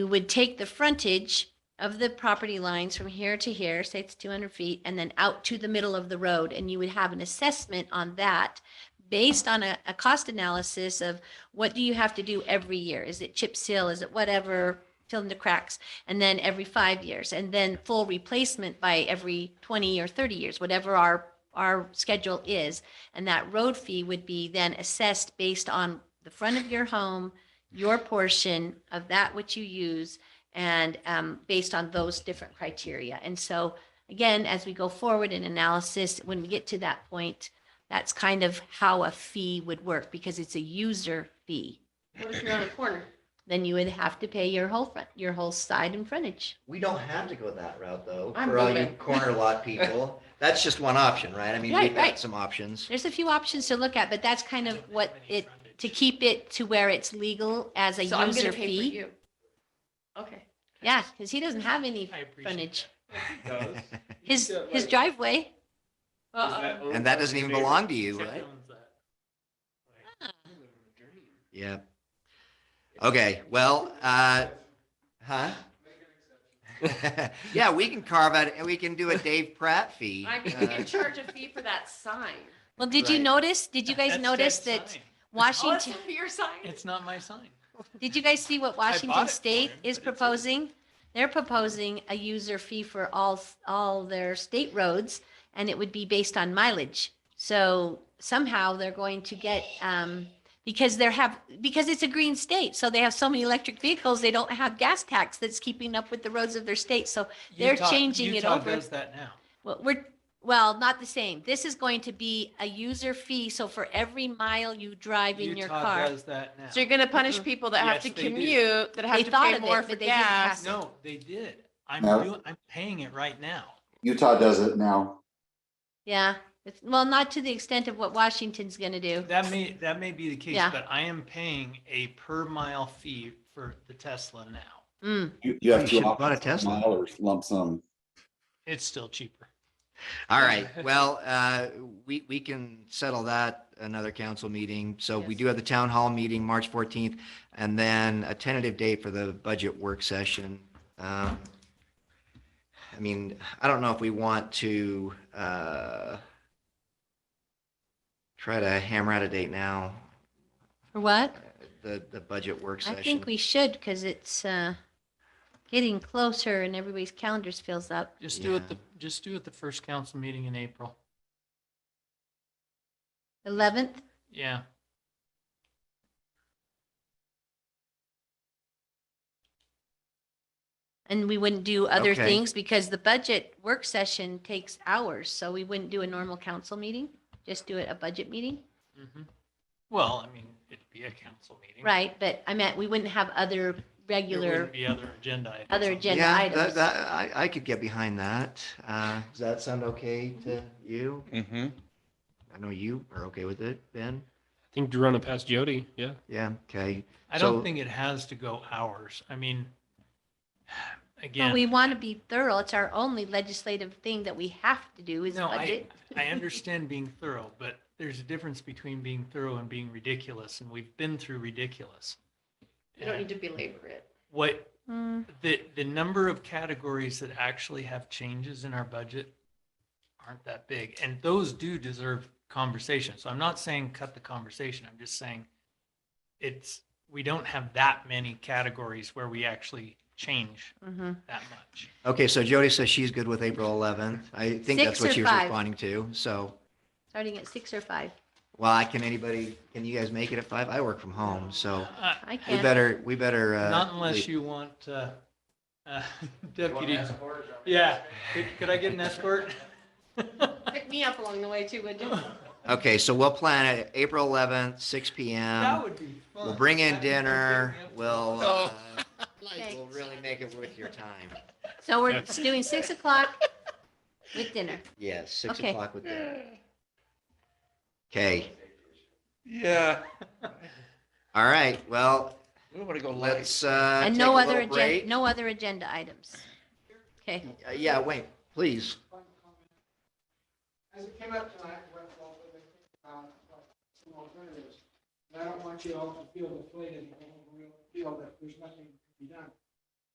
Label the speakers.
Speaker 1: we would take the frontage of the property lines from here to here, say it's 200 feet, and then out to the middle of the road, and you would have an assessment on that based on a, a cost analysis of what do you have to do every year? Is it chip seal? Is it whatever? Fill in the cracks, and then every five years, and then full replacement by every 20 or 30 years, whatever our our schedule is. And that road fee would be then assessed based on the front of your home, your portion of that which you use, and um, based on those different criteria. And so, again, as we go forward in analysis, when we get to that point, that's kind of how a fee would work because it's a user fee.
Speaker 2: What if you're on a corner?
Speaker 1: Then you would have to pay your whole front, your whole side and frontage.
Speaker 3: We don't have to go that route though,
Speaker 2: I'm
Speaker 3: for all you
Speaker 2: moving.
Speaker 3: corner lot people. That's just one option, right? I mean,
Speaker 1: Right,
Speaker 3: we've
Speaker 1: right.
Speaker 3: got some options.
Speaker 1: There's a few options to look at, but that's kind of what it, to keep it to where it's legal as a
Speaker 2: So I'm gonna
Speaker 1: user
Speaker 2: pay for
Speaker 1: fee.
Speaker 2: you. Okay.
Speaker 1: Yeah, because he doesn't have any
Speaker 4: I appreciate
Speaker 1: frontage.
Speaker 5: does.
Speaker 1: His,
Speaker 5: Yeah,
Speaker 1: his
Speaker 5: like,
Speaker 1: driveway.
Speaker 5: is that
Speaker 2: Uh-oh.
Speaker 5: owned
Speaker 3: And
Speaker 5: by
Speaker 3: that doesn't
Speaker 5: the
Speaker 3: even
Speaker 5: neighbor?
Speaker 3: belong to you,
Speaker 4: Except he
Speaker 3: right?
Speaker 4: owns that. Like, you live in a dream.
Speaker 3: Yeah. Okay, well, uh, huh? Yeah, we can carve out, we can do a Dave Pratt fee.
Speaker 2: I mean,
Speaker 3: Uh,
Speaker 2: you can charge a fee for that sign.
Speaker 1: Well, did you
Speaker 3: Right.
Speaker 1: notice, did you guys
Speaker 4: That's
Speaker 1: notice
Speaker 4: Dad's
Speaker 1: that
Speaker 4: sign.
Speaker 2: Oh, it's
Speaker 1: Washington,
Speaker 2: not for your sign?
Speaker 4: It's not my sign.
Speaker 1: did you guys see what
Speaker 4: bought
Speaker 1: Washington
Speaker 4: it for
Speaker 1: State
Speaker 4: him, but
Speaker 1: is
Speaker 4: it's a-
Speaker 1: proposing? They're proposing a user fee for all, all their state roads, and it would be based on mileage. So somehow they're going to get, um, because they're have, because it's a green state, so they have so many electric vehicles, they don't have gas tax that's keeping up with the roads of their state. So They're
Speaker 4: Utah-
Speaker 1: changing it
Speaker 4: Utah
Speaker 1: over.
Speaker 4: Does that now.
Speaker 1: Well, we're, well, not the same. This is going to be a user fee. So for every mile you drive in your
Speaker 4: Utah
Speaker 1: car.
Speaker 4: Does that now.
Speaker 6: So you're gonna punish people that have
Speaker 4: Uh-huh. Yes,
Speaker 6: to
Speaker 4: they do.
Speaker 6: commute, that
Speaker 1: They
Speaker 6: have to
Speaker 1: thought
Speaker 6: pay
Speaker 1: of it,
Speaker 6: more
Speaker 1: but
Speaker 6: for
Speaker 1: they didn't
Speaker 6: gas.
Speaker 1: pass it.
Speaker 4: No, they did. I'm,
Speaker 7: No.
Speaker 4: doing- I'm paying it right now.
Speaker 7: Utah does it now.
Speaker 1: Yeah. It's- Well, not to the extent of what Washington's going to do.
Speaker 4: That may, that may be the case,
Speaker 1: Yeah.
Speaker 4: but I am paying a per mile fee for the Tesla now.
Speaker 1: Mm.
Speaker 7: You, you have
Speaker 3: You
Speaker 7: two
Speaker 3: should've bought a
Speaker 7: options,
Speaker 3: Tesla.
Speaker 7: mile or lump sum.
Speaker 4: It's still cheaper.
Speaker 3: All right, well, uh, we, we can settle that another council meeting. So we
Speaker 2: Yes.
Speaker 3: do have the town hall meeting, March 14th, and then a tentative date for the budget work session. Um, I mean, I don't know if we want to uh, try to hammer out a date now,
Speaker 1: For what?
Speaker 3: the, the budget work
Speaker 1: I
Speaker 3: session.
Speaker 1: think we should because it's uh, getting closer and everybody's calendars fills up.
Speaker 4: Just do
Speaker 3: Yeah.
Speaker 4: it, the just do it the first council meeting in April.
Speaker 1: 11th?
Speaker 4: Yeah.
Speaker 1: And we wouldn't do other
Speaker 3: Okay.
Speaker 1: things because the budget work session takes hours. So we wouldn't do a normal council meeting, just do it a budget meeting.
Speaker 4: Mhm. Well, I mean, it'd be a council meeting.
Speaker 1: Right. But I meant we wouldn't have other
Speaker 4: There
Speaker 1: regular
Speaker 4: Mm. wouldn't be other agenda. items
Speaker 1: other
Speaker 4: on the-
Speaker 1: agenda
Speaker 3: Yeah,
Speaker 1: items.
Speaker 3: that, that, I, I could get behind that. Uh, Does that sound okay to you?
Speaker 8: Mm-hmm.
Speaker 3: I know you are okay with it, Ben?
Speaker 9: I think Drew run it past Jody. Yeah.
Speaker 3: Yeah, okay.
Speaker 4: I
Speaker 3: So-
Speaker 4: don't think it has to go hours. I mean,
Speaker 1: Well,
Speaker 4: again,
Speaker 1: we want to be thorough. It's our only legislative thing that we have to do is
Speaker 4: no, I,
Speaker 1: budget.
Speaker 4: I understand being thorough, but there's a difference between being thorough and being ridiculous, and we've been through ridiculous.
Speaker 2: You don't
Speaker 4: And
Speaker 2: need to belabor it.
Speaker 4: What,
Speaker 1: Mm,
Speaker 4: the, the number of categories that actually have changes in our budget aren't that big, and those do deserve conversation. So I'm not saying cut the conversation, I'm just saying it's, we don't have that many categories where we actually change
Speaker 1: mhm.
Speaker 4: that much.
Speaker 3: Okay, so Jody says she's good with April 11th. I think
Speaker 1: Six
Speaker 3: that's what
Speaker 1: or
Speaker 3: she was
Speaker 1: five?
Speaker 3: responding to. So,
Speaker 1: Starting at six or five.
Speaker 3: well, I can anybody, can you guys make it at five? I work from home, so
Speaker 4: Uh,
Speaker 1: I
Speaker 3: we
Speaker 1: can't.
Speaker 3: better, we better. uh,
Speaker 4: Not unless
Speaker 3: leave.
Speaker 4: you want uh, uh, deputy. Yeah, could could I get an escort?
Speaker 3: Um,
Speaker 2: Pick me up along the way too, would you?
Speaker 4: That
Speaker 3: Okay, so we'll plan it, April 11th, 6 PM.
Speaker 4: would be fun.
Speaker 3: We'll bring in
Speaker 4: That would be
Speaker 3: dinner.
Speaker 4: great.
Speaker 3: We'll, uh,
Speaker 8: Oh.
Speaker 1: Okay.
Speaker 3: we'll really make it worth your time.
Speaker 1: So we're doing six o'clock with dinner.
Speaker 3: Yes, 6
Speaker 1: Okay.
Speaker 3: o'clock with dinner. Okay,
Speaker 8: Yeah.
Speaker 3: all right, well,
Speaker 8: We want to go live.
Speaker 3: let's, uh.
Speaker 1: And
Speaker 3: take
Speaker 1: no
Speaker 3: a
Speaker 1: other
Speaker 3: little break.
Speaker 1: agenda, no other agenda items. Okay.
Speaker 3: Uh, Yeah, wait, please.
Speaker 10: As it came up tonight, what, what, what, they think about, what, some alternatives. And I don't want you all to feel deflated, and feel that there's nothing to be done.